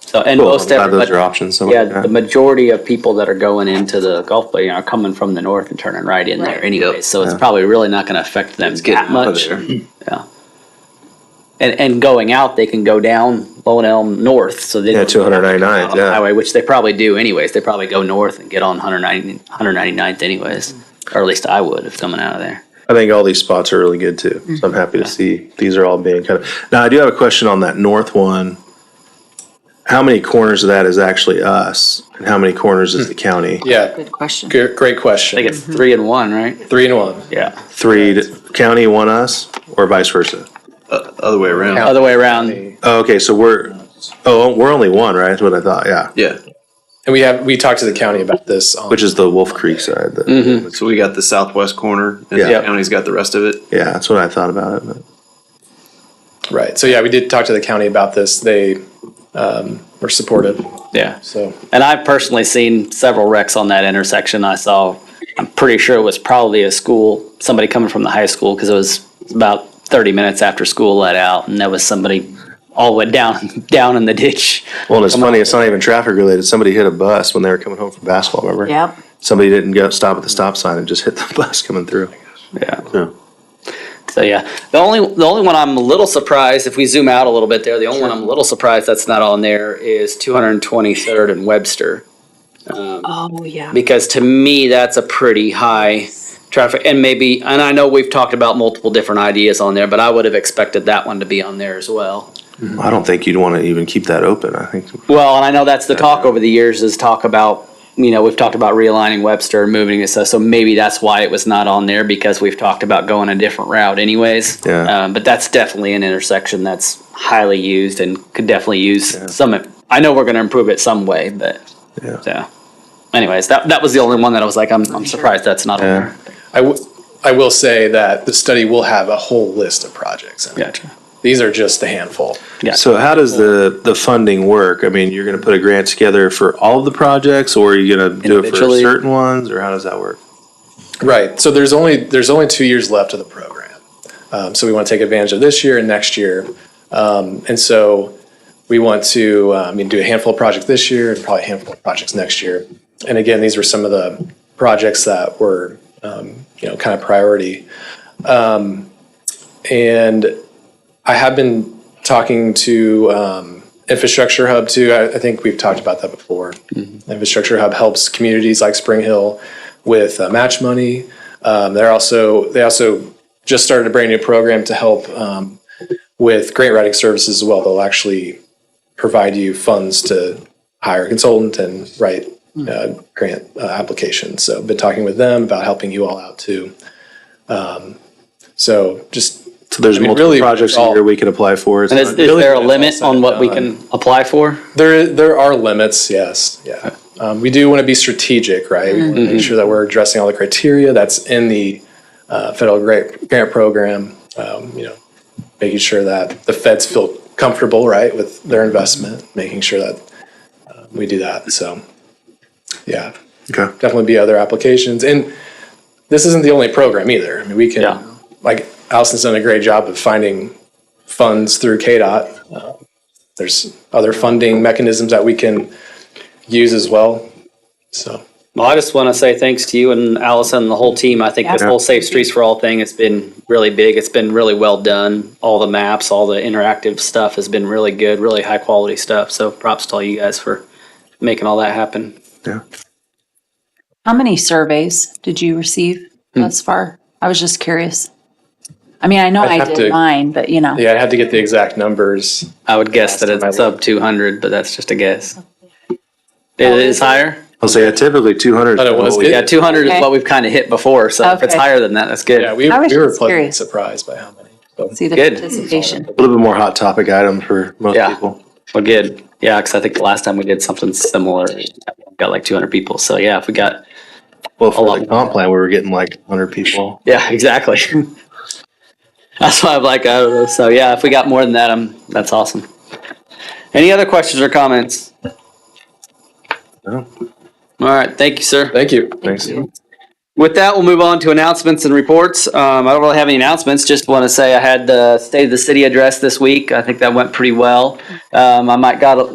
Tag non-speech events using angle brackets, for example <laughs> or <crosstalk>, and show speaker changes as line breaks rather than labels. So, and
Cool,
most
I'm glad
every-
those
but-
are options, so-
Yeah, the majority of people that are going into the Gulf Bay are coming from the north and turning right in there
Right.
anyway. So it's probably really not going to affect them that
getting out of
much.
there.
<laughs> Yeah. And, and going out, they can go down Lone Elm north, so they.
Yeah,
don't-
299, yeah.
Highway, which they probably do anyways. They probably go north and get on 190 199th anyways, or at least I would if coming out of there.
I think all these spots are really good too. So I'm happy to see these are all being kind of. Now I do have a question on that north one. How many corners of that is actually us, and how many corners is the county?
Yeah,
Good question.
great, great
I think
question.
it's three and one, right?
Three and one.
Yeah.
Three to, county, one us, or vice versa.
Other way around.
Other way around.
Oh, okay, so we're oh we're only one, right? That's what I thought. Yeah,
Yeah.
And we have, we talked to the county about this. on-
which is the Wolf Creek side. That,
So we got the southwest corner and
Yeah.
the county's got the rest of it.
Yeah, that's what I thought about it. But.
Right. So yeah, we did talk to the county about this. They um, were supportive.
Yeah.
So
And I've personally seen several wrecks on that intersection. I saw, I'm pretty sure it was probably a school, somebody coming from the high school, because it was about 30 minutes after school let out, and there was somebody all went down, <laughs> down in the ditch.
Well, and it's funny. It's not even traffic related. Somebody hit a bus when they were coming home from basketball. Remember?
Yep.
Somebody didn't go stop at the stop sign and just hit the <laughs> bus coming through.
Yeah.
Yeah.
So yeah, the only the only one I'm a little surprised if we zoom out a little bit there, the only one I'm a little surprised that's not on there is 223rd and Webster.
Oh, yeah.
because to me that's a pretty high traffic and maybe and i know we've talked about multiple different ideas on there but i would have expected that one to be on there as well
I don't think you'd want to even keep that open. I think
well and i know that's the talk over the years is talk about you know we've talked about realigning webster and moving this so maybe that's why it was not on there because we've talked about going a different route anyways
Yeah.
um, but that's definitely an intersection that's highly used and could definitely use some i know we're going to improve it some way but
Yeah.
so anyways that, that was the only one that i was like i'm, I'm surprised that's not on
Yeah.
there
I, w- I will say that the study will have a whole list of projects. in it.
Gotcha.
These are just a handful.
Yeah.
So how does the, the funding work? I mean, you're going to put a grant together for all of the projects or are you going to do it for
Individually.
certain ones or how does that work?
Right. So there's only there's only two years left of the program. Um, so we want to take advantage of this year and next year. Um, and so we want to um, you know, do a handful of projects this year and probably a handful of projects next year. And again, these were some of the projects that were um, you know kind of priority. Um, and I have been talking to um, Infrastructure Hub too. I, I think we've talked about that before. Infrastructure Hub helps communities like Spring Hill with uh, match money. Um, they're also they also just started a brand new program to help um, with grant writing services as well. They'll actually provide you funds to hire a consultant and write uh, grant uh, applications. So I've been talking with them about helping you all out too. Um, so just
So there's
I mean,
multiple
really,
projects a
all-
year we can apply for. It's
And is,
not-
is there a
Really,
limit
it's all
on
said
what we
and
can apply for?
There, there are limits, yes, yeah. Um, we do want to be strategic, right? We want to make sure that we're addressing all the criteria that's in the uh, federal grant, grant program. Um, you know, making sure that the feds feel comfortable, right, with their investment, making sure that uh, we do that. So, yeah,
Okay.
definitely be other applications. And this isn't the only program either. I mean, we can,
Yeah.
like, Allison's done a great job of finding funds through KDOT. Uh, there's other funding mechanisms that we can use as well. So,
Well, I just want to say thanks to you and Allison and the whole team. I think this
Yeah.
whole Safe Streets for All thing has been really big. It's been really well done. All the maps, all the interactive stuff has been really good, really high quality stuff. So props to all you guys for making all that happen.
Yeah.
How many surveys did you receive
Hmm.
thus far? I was just curious. I mean, I know
I'd
I
have to-
did mine, but you know,
yeah, I had to get the exact numbers.
I would guess that
time I
it's sub 200, but that's just a guess. It is higher.
I'll say yeah, typically 200.
But it was-
we-
Yeah, 200
Okay.
is what we've kind of hit before. So if it's
Okay.
higher than that, that's good.
Yeah, we,
I was
we were
just
pleasantly
curious.
surprised by how many. But
see the
Good.
participation.
a little bit more hot topic item for most
Yeah.
people.
Well, good. Yeah, because I think the last time we did something similar, got like 200 people. So yeah, if we got
Well,
A
for
lot
the comp plan, we were getting like 100 people.
yeah, <laughs> exactly. that's why I'm like, I don't know. So yeah, if we got more than that, i that's awesome. Any other questions or comments?
No.
All right, thank you, sir.
thank you.
Thanks.
With that, we'll move on to announcements and reports. Um, I don't really have any announcements. Just want to say I had the State of the City address this week. I think that went pretty well. Um, I might got a